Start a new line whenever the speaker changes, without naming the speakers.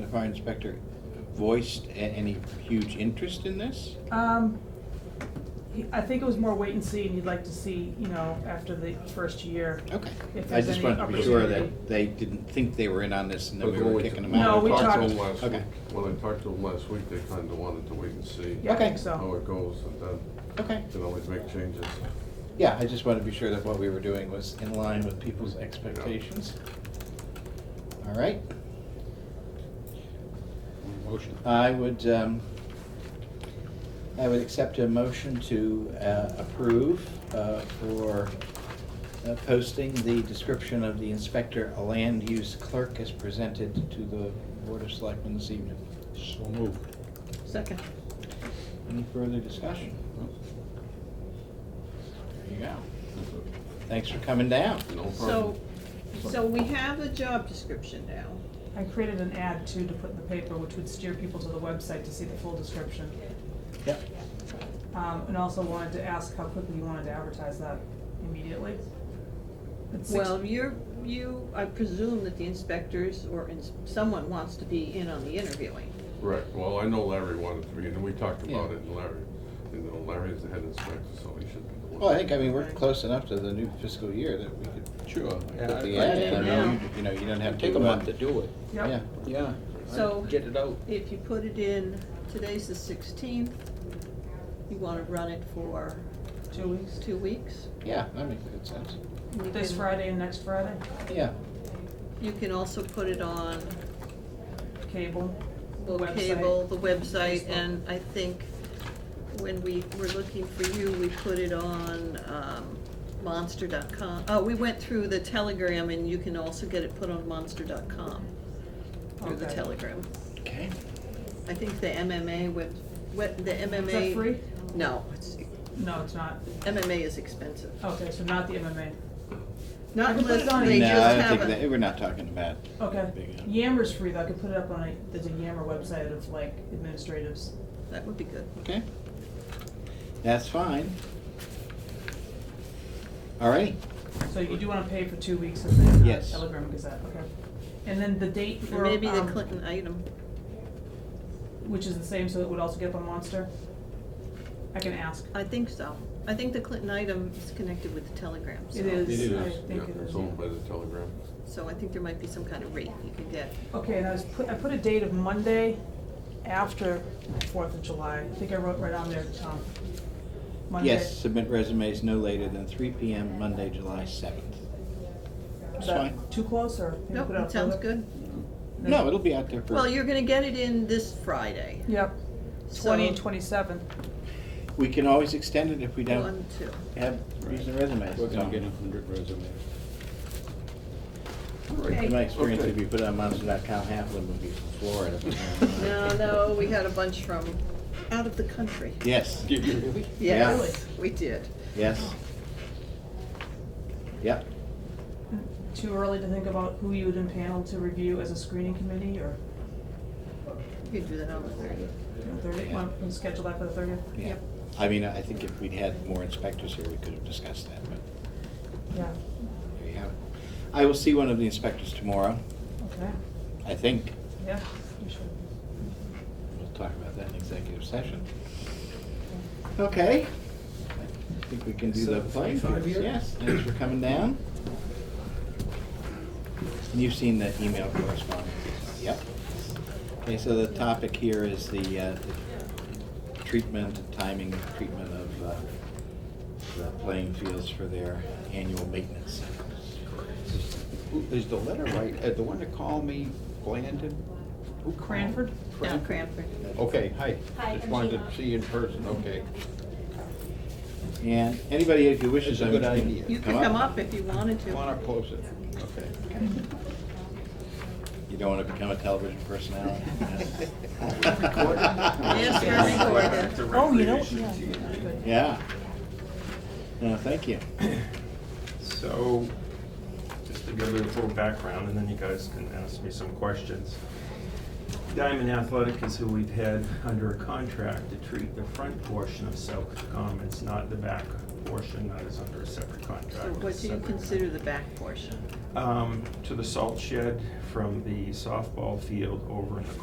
The fire inspector voiced a- any huge interest in this?
Um, he- I think it was more wait and see, and you'd like to see, you know, after the first year.
Okay.
If
I
there's
just
any
wanted to be sure
opportunity.
that they didn't think they were in on this and that
But
we
when
were
we-
kicking them
when I
No,
out.
we
talked to
talked-
them last
Okay.
week- When I talked to them last week, they kinda wanted to wait and see
Yeah, I
Okay.
think
how
so.
it goes, and then
Okay,
can always make changes.
yeah, I just wanted to be sure that what we were doing was in line with people's expectations. All right.
Motion.
I would, um, I would accept a motion to uh, approve uh, for uh, posting the description of the inspector, a land use clerk, as presented to the Board of Selectmen this evening.
So moved.
Second.
Any further discussion? There you go. Thanks for coming down.
No
So,
problem.
so we have a job description now.
I created an ad too to put in the paper, which would steer people to the website to see the full description.
Yep.
Um, and also wanted to ask how quickly you wanted to advertise that immediately. It's six-
Well, you're, you, I presume that the inspectors or ins- someone wants to be in on the interviewing.
Right, well, I know Larry wanted to be, and we talked about
Yeah.
it, and Larry, you know, Larry's the head inspector, so he should be the one.
Well, I think, I mean, we're close enough to the new fiscal year that we could
Sure.
put the
I-
ad
I-
in.
Yeah.
You- You know, you don't have to.
Take a
uh,
month to do it.
Yeah.
Yep,
Yeah.
So-
Get it out.
If you put it in, today's the sixteenth, you wanna run it for
two weeks.
two weeks.
Yeah, that makes good sense.
and you
This
can-
Friday and next Friday,
Yeah.
You can also put it on
cable, the
the
website.
cable, the website,
Facebook.
and I think when we were looking for you, we put it on um, monster.com. Oh, we went through the Telegram, and you can also get it put on monster.com through the
Okay.
Telegram.
Okay.
I think the MMA web, web- the MMA.
Is that free?
No, it's,
No, it's not.
MMA is expensive.
Okay, so not the MMA. Oh. I
Not
can put it on
unless they
a-
No,
just
I don't
have
think that,
a,
we're not talking about.
Okay,
Big app.
Yammer's free, though, I could put it up on a, there's a Yammer website of like administratives.
that would be good.
Okay. That's fine. All right.
So you do wanna pay for two weeks of the uh,
Yes.
Telegram Gazette, okay. And then the date
Or
for,
maybe the
um,
Clinton item.
which is the same, so it would also get up on Monster? I can ask.
I think so. I think the Clinton item is connected with the Telegram, so.
It is.
It is,
I
yeah,
think it
it's
is,
owned
yeah.
by the Telegram.
So I think there might be some kind of rate you can get.
Okay, and I was, put- I put a date of Monday after Fourth of July, I think I wrote right on there, Tom. Monday.
Yes, submit resumes no later than three PM Monday, July seventh.
Is
It's
that
fine.
too close, or? can you
Nope,
put up
it sounds
further?
good.
No, it'll be out there
Well,
for,
you're gonna get it in this Friday.
Yep, twenty and
So-
twenty-seven.
we can always extend it if we
One,
don't
two.
have recent resumes.
We're gonna
So,
get a hundred resumes.
In my experience,
Okay.
if you put it on monster.com, half of them would be from Florida. but-
No, no, we had a bunch from out of the country.
Yes,
Did you really?
Yeah.
Yes, we did.
yes. Yep.
Too early to think about who you would impanel to review as a screening committee, or
You can do that on the thirtieth.
thirty, want to schedule that for the thirtieth?
Yeah.
Yep.
I mean, I think if we'd had more inspectors here, we could have discussed that, but.
Yeah,
There you have it. I will see one of the inspectors tomorrow,
okay,
I think.
yeah, you should.
We'll talk about that in executive session. Okay. I think we can do the playing fields. Yes, thanks for coming down. And you've seen the email correspondence. Yep. Okay, so the topic here is the uh, the treatment, timing, of treatment of uh, the playing fields for their annual maintenance.
Who- Is the letter right, uh, the one that called me, Blandon? Who called?
Cranford?
Now
Cranford?
Cranford.
Oh.
Okay, hi.
Hi,
Just
I'm
wanted
Gina.
to see you in person, okay.
And anybody who wishes.
That's a
I'm-
good idea.
You could come up if you wanted
Come on
to.
up closer, okay.
You don't want to become a television personality?
Yes, we're recorded.
Oh, you know, yeah.
Yeah. No, thank you.
So, just to give you a little background, and then you guys can ask me some questions. Diamond Athletic is who we've had under a contract to treat the front portion of South Commons, not the back portion, that is under a separate contract.
So
with a
what do you
separate-
consider the back portion?
Um, to the salt shed from the softball field over in the